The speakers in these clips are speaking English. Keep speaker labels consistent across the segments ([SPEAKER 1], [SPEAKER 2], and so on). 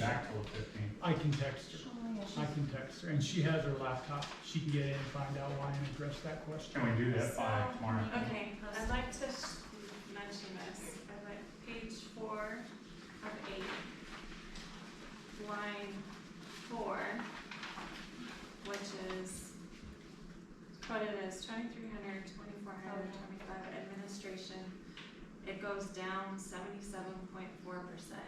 [SPEAKER 1] back till the fifteenth.
[SPEAKER 2] I can text her, I can text her, and she has her laptop, she can get in and find out why and address that question.
[SPEAKER 1] Can we do that by tomorrow?
[SPEAKER 3] Okay, I'd like to s- mention this, I'd like page four of eight, line four, which is quoted as twenty-three hundred, twenty-four hundred, twenty-five administration. It goes down seventy-seven point four percent.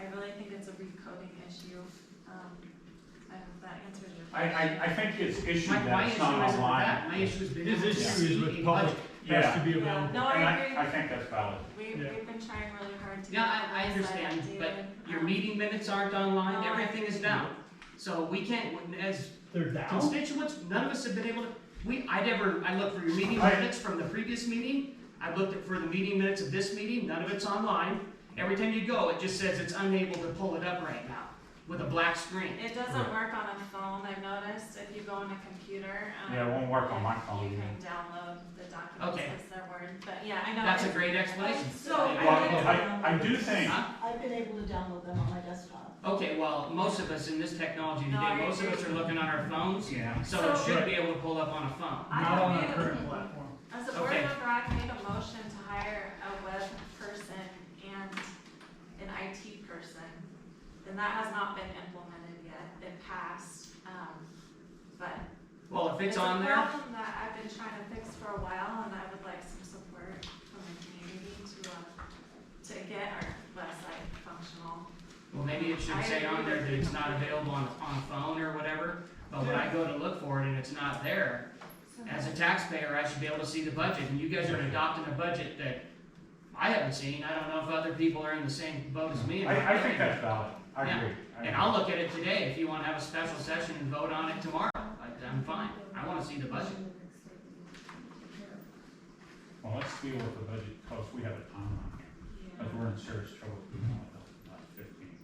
[SPEAKER 3] I really think it's a recoding issue, um, I hope that answers your
[SPEAKER 1] I,
[SPEAKER 3] question.
[SPEAKER 1] I, I think it's issued
[SPEAKER 4] My, my
[SPEAKER 1] that
[SPEAKER 4] issue
[SPEAKER 1] it's not
[SPEAKER 4] isn't with that,
[SPEAKER 1] online.
[SPEAKER 4] my issue has been.
[SPEAKER 2] His issue is with public, has to be
[SPEAKER 3] Yeah,
[SPEAKER 2] available.
[SPEAKER 3] no,
[SPEAKER 1] And
[SPEAKER 3] I agree.
[SPEAKER 1] I, I think that's valid.
[SPEAKER 3] We,
[SPEAKER 2] Yeah.
[SPEAKER 3] we've been trying really hard to.
[SPEAKER 4] No, I,
[SPEAKER 3] get
[SPEAKER 4] I
[SPEAKER 3] that
[SPEAKER 4] understand,
[SPEAKER 3] updated.
[SPEAKER 4] but your
[SPEAKER 3] Um,
[SPEAKER 4] meeting minutes aren't online,
[SPEAKER 3] No, I-
[SPEAKER 4] everything is down. So we can't, as
[SPEAKER 2] They're down?
[SPEAKER 4] constituents, none of us have been able to, we, I never, I looked for your meeting
[SPEAKER 1] I-
[SPEAKER 4] minutes from the previous meeting. I've looked at- for the meeting minutes of this meeting, none of it's online. Every time you go, it just says it's unable to pull it up right now with a black screen.
[SPEAKER 3] Um, It doesn't work on a phone, I've noticed, if you go on a computer, um.
[SPEAKER 1] Yeah, it won't work on my phone
[SPEAKER 3] You
[SPEAKER 1] either.
[SPEAKER 3] can download the documents
[SPEAKER 4] Okay.
[SPEAKER 3] as their word, but yeah, I know.
[SPEAKER 4] That's a
[SPEAKER 3] it's-
[SPEAKER 4] great explanation.
[SPEAKER 3] So,
[SPEAKER 4] I-
[SPEAKER 1] Well, I, I do think,
[SPEAKER 4] Huh?
[SPEAKER 5] I've been able to download them on my desktop.
[SPEAKER 4] Okay, well, most of us in this technology
[SPEAKER 3] No, I
[SPEAKER 4] today, most of
[SPEAKER 3] agree.
[SPEAKER 4] us are looking on our phones,
[SPEAKER 1] yeah,
[SPEAKER 4] so it
[SPEAKER 3] So-
[SPEAKER 4] should be able to pull up on a phone.
[SPEAKER 3] I
[SPEAKER 2] Not on
[SPEAKER 3] don't
[SPEAKER 2] our
[SPEAKER 3] know.
[SPEAKER 2] current platform.
[SPEAKER 3] As a board
[SPEAKER 4] Okay.
[SPEAKER 3] member, I made a motion to hire a web person and an IT person. And that has not been implemented yet, it passed, um, but
[SPEAKER 4] Well, if it's on there,
[SPEAKER 3] a problem that I've been trying to fix for a while, and I would like some support from the community to, uh, to get our website functional.
[SPEAKER 4] well, maybe it should say on there that it's not available on, on a phone or whatever, but when I go to look for it and it's not there,
[SPEAKER 3] So
[SPEAKER 4] as a taxpayer, I should be able to see the budget, and you guys are adopting a budget that I haven't seen, I don't know if other people are in the same boat as me. or not.
[SPEAKER 1] I, I think that's valid. I
[SPEAKER 4] Yeah.
[SPEAKER 1] agree. I
[SPEAKER 4] And
[SPEAKER 1] agree.
[SPEAKER 4] I'll look at it today, if you wanna have a special session and vote on it tomorrow, I- I'm fine, I wanna see the budget.
[SPEAKER 1] Well, let's deal with the budget, cause we have a timeline here.
[SPEAKER 3] yeah.
[SPEAKER 1] Because we're in serious trouble with the mental health about fifteen.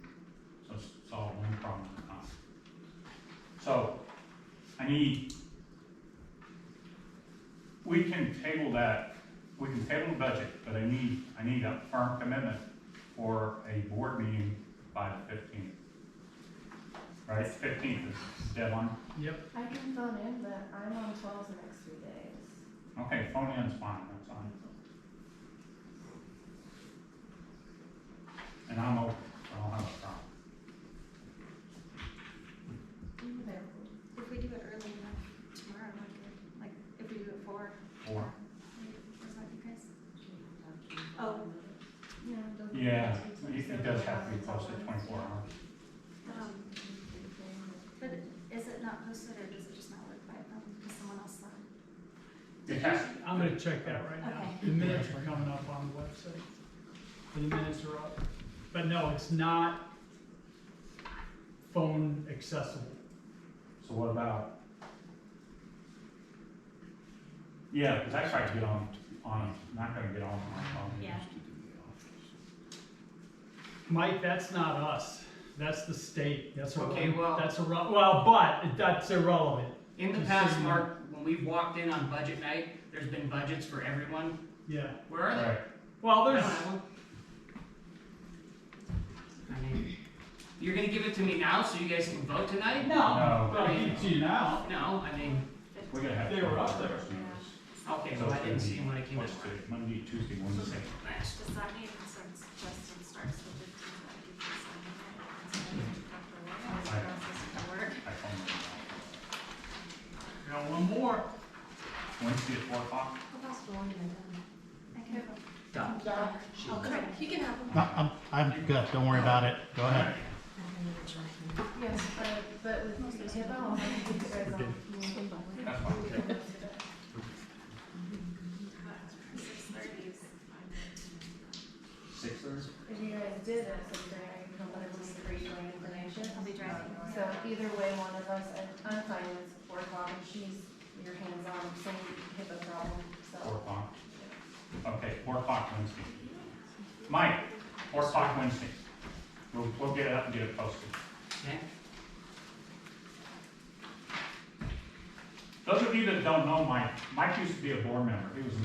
[SPEAKER 1] So let's solve one problem at a time. So I need, we can table that, we can table the budget, but I need, I need a firm commitment for a board meeting by the fifteenth. Right, fifteenth is the deadline.
[SPEAKER 2] Yep,
[SPEAKER 6] I can phone in, but I'm on calls the next three days.
[SPEAKER 1] Okay, phone in's fine, that's fine. And I'm open, I don't have a problem.
[SPEAKER 6] Even there.
[SPEAKER 7] If we do it early enough tomorrow, might be good. like, if we do it four,
[SPEAKER 1] Or
[SPEAKER 7] does that be guys?
[SPEAKER 6] Oh. No, it doesn't.
[SPEAKER 1] Yeah, it it does have to be posted twenty-four hours.
[SPEAKER 3] Um,
[SPEAKER 7] But is it not posted or does it just not work by them? Because someone else saw it?
[SPEAKER 1] It has,
[SPEAKER 2] I'm gonna check that right now.
[SPEAKER 7] Okay.
[SPEAKER 2] The minutes are coming up on the website. The minutes are up. But no, it's not phone accessible.
[SPEAKER 1] so what about? Yeah, because I try to get on, on, not gonna get on my phone.
[SPEAKER 7] Yeah.
[SPEAKER 2] Mike, that's not us. That's the state. That's
[SPEAKER 4] Okay, well-
[SPEAKER 2] irrelevant. That's irrelevant. Well, but that's irrelevant.
[SPEAKER 4] In the
[SPEAKER 2] Just
[SPEAKER 4] past,
[SPEAKER 2] sitting there.
[SPEAKER 4] Mark, when we've walked in on budget night, there's been budgets for everyone.
[SPEAKER 2] Yeah.
[SPEAKER 4] Where are they?
[SPEAKER 1] Right,
[SPEAKER 2] Well,
[SPEAKER 4] I don't
[SPEAKER 2] there's,
[SPEAKER 4] have one. I mean, you're gonna give it to me now so you guys can vote tonight?
[SPEAKER 1] No.
[SPEAKER 2] no, I'll give it to you now.
[SPEAKER 4] No, I mean,
[SPEAKER 1] we're gonna have.
[SPEAKER 2] They were up there.
[SPEAKER 4] okay,
[SPEAKER 1] So
[SPEAKER 4] well, I
[SPEAKER 1] it's
[SPEAKER 4] didn't
[SPEAKER 1] gonna
[SPEAKER 4] see
[SPEAKER 1] be-
[SPEAKER 4] him when I came in.
[SPEAKER 1] What's today, Monday, Tuesday, Wednesday?
[SPEAKER 3] Does that mean since Justin starts the fifteenth, that he can sign it? So, Dr. Ward, how is the process gonna work?
[SPEAKER 1] I phone them.
[SPEAKER 2] Got one more.
[SPEAKER 1] Wednesday at four o'clock?
[SPEAKER 7] I can have
[SPEAKER 4] Done.
[SPEAKER 7] Oh, come on, you can have them.
[SPEAKER 8] No, I'm, I'm good, don't worry about it, go ahead.
[SPEAKER 6] Yes, but, but with Tibo, I'll have to keep you guys on.
[SPEAKER 1] That's fine.
[SPEAKER 3] Six thirty is fine.
[SPEAKER 1] Six thirty?
[SPEAKER 6] If you guys did it, so then I can come back and just read my information.
[SPEAKER 7] I'll be driving.
[SPEAKER 6] So either way, one of us, I- I'm fine with four o'clock, and she's, your hands on, same HIPAA problem,
[SPEAKER 1] Four
[SPEAKER 6] so.
[SPEAKER 1] o'clock. Okay, four o'clock Wednesday. Mike, four o'clock Wednesday. We'll, we'll get it up and get it posted.
[SPEAKER 4] Okay?
[SPEAKER 1] Those of you that don't know Mike, Mike used to be a board member. He was a